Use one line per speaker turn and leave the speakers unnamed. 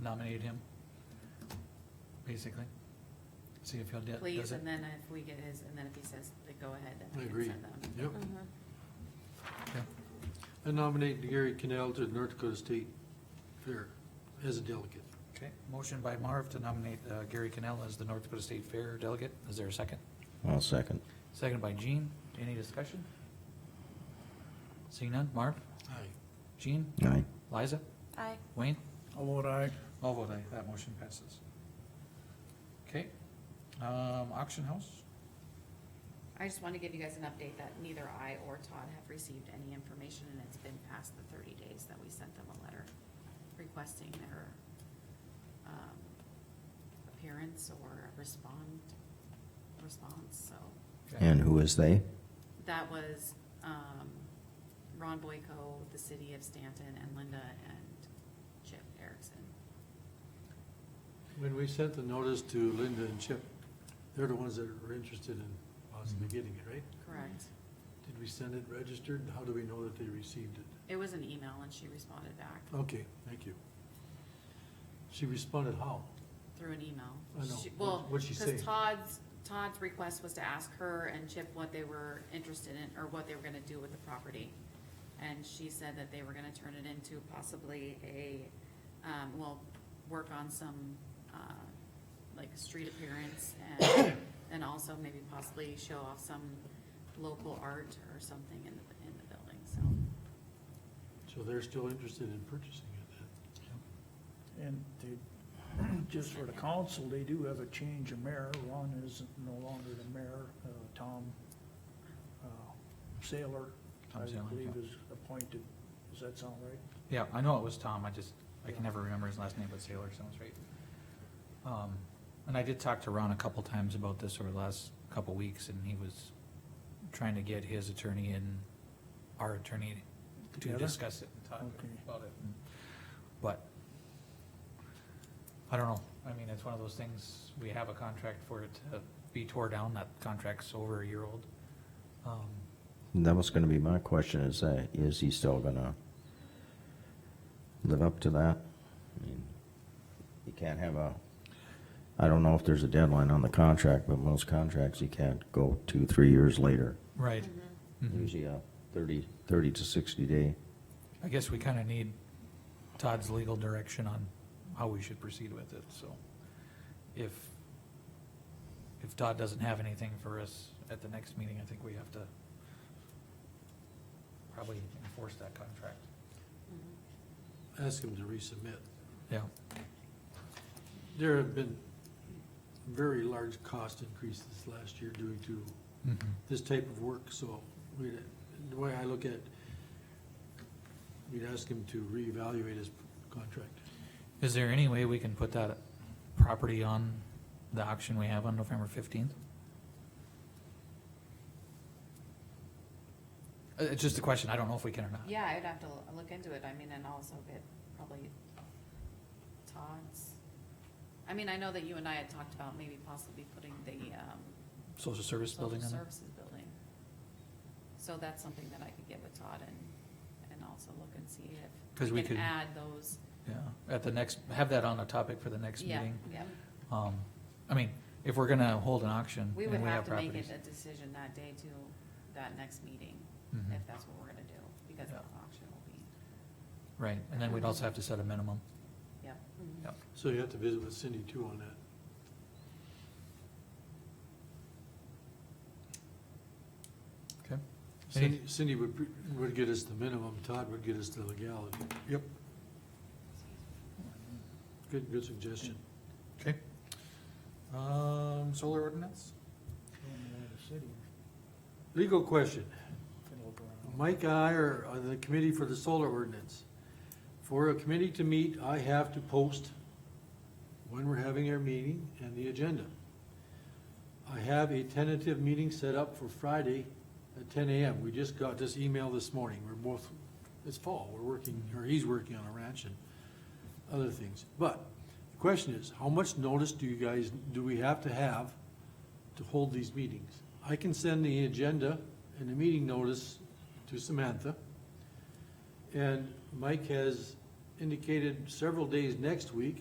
nominate him, basically. See if he'll, do-
please,
does it,
and then if we get his, and then if he says, to go ahead, then
I
we can
agree.
send them.
Yep.
Mhm.
okay,
I nominate Gary Canal to the North Dakota State Fair as a delegate.
okay. Motion by Marv to nominate uh, Gary Cannell as the North Dakota State Fair delegate. Is there a second?
I'll second.
Second by Jean. Any discussion? Seeing none. Marv?
Aye.
Jean?
Aye.
Liza?
Aye.
Wayne?
I'll vote aye.
All vote aye, that motion passes. Okay, um, auction house?
I just want to give you guys an update that neither I or Todd have received any information, and it's been past the thirty days that we sent them a letter requesting their, um, appearance or respond, response, so.
And who is they?
That was, um, Ron Boyko, the city of Stanton, and Linda and Chip Erickson.
When we sent the notice to Linda and Chip, they're the ones that are interested in possibly getting it, right?
Correct.
Did we send it registered? How do we know that they received it?
It was an email, and she responded back
Okay, thank you. She responded how?
through an email.
I know.
She-
What-
Well,
what'd she say?
because Todd's, Todd's request was to ask her and Chip what they were interested in, or what they were gonna do with the property. And she said that they were gonna turn it into possibly a, um, well, work on some, uh, like, street appearance, and, and also maybe possibly show off some local art or something in the, in the building, so.
So they're still interested in purchasing it then?
And they, just for the council, they do have a change of mayor. Ron is no longer the mayor. Uh, Tom uh, Saylor,
Tom
I
Saylor,
believe,
yeah.
is appointed. Does that sound right?
Yeah, I know it was Tom, I just, I can never remember his last name, but Sailor sounds right. Um, and I did talk to Ron a couple times about this over the last couple weeks, and he was trying to get his attorney and our attorney to
Together?
discuss it and talk
Okay.
about it. But, I don't know, I mean, it's one of those things, we have a contract for it to be tore down, that contract's over a year old. Um,
That was gonna be my question, is that, is he still gonna live up to that? I mean, You can't have a, I don't know if there's a deadline on the contract, but most contracts, you can't go two, three years later.
Right. Mhm.
Usually a thirty, thirty to sixty day.
I guess we kind of need Todd's legal direction on how we should proceed with it, so. If, if Todd doesn't have anything for us at the next meeting, I think we have to probably enforce that contract.
Ask them to resubmit.
Yeah,
There have been very large cost increases last year due to
Mhm.
this type of work, so we, the way I look at, we'd ask him to reevaluate his contract.
Is there any way we can put that property on the auction we have on November fifteenth? Uh, It's just a question. I don't know if we can or not.
Yeah, I'd have to l- look into it, I mean, and also get probably Todd's. I mean, I know that you and I had talked about maybe possibly putting the, um,
Social service
social
building on there?
services building. So that's something that I could get with Todd and, and also look and see
'Cause
if
we
we can
could-
add those.
Yeah, at the next, have that on a topic for the next
Yeah,
meeting.
yeah.
Um, I mean, if we're gonna hold an auction
We would
and we
have
have
to make it
properties.
a decision that day to that next meeting,
Mhm.
if that's what we're gonna do, because the
Yeah.
auction will be,
Right, and then we'd also have to set a minimum.
yeah.
Yep.
So you have to visit with Cindy too on that.
Okay.
Cindy, Cindy would, pre- would get us the minimum, Todd would get us the legality. Yep. Good, good suggestion.
Okay. Um, solar ordinance?
Going away to city,
Legal question.
can look around.
Mike and I are on the committee for the solar ordinance. For a committee to meet, I have to post when we're having our meeting and the agenda. I have a tentative meeting set up for Friday at ten AM. We just got this email this morning. We're both, it's fall, we're working, or he's working on a ranch and other things. But the question is, how much notice do you guys, do we have to have to hold these meetings? I can send the agenda and the meeting notice to Samantha. And Mike has indicated several days next week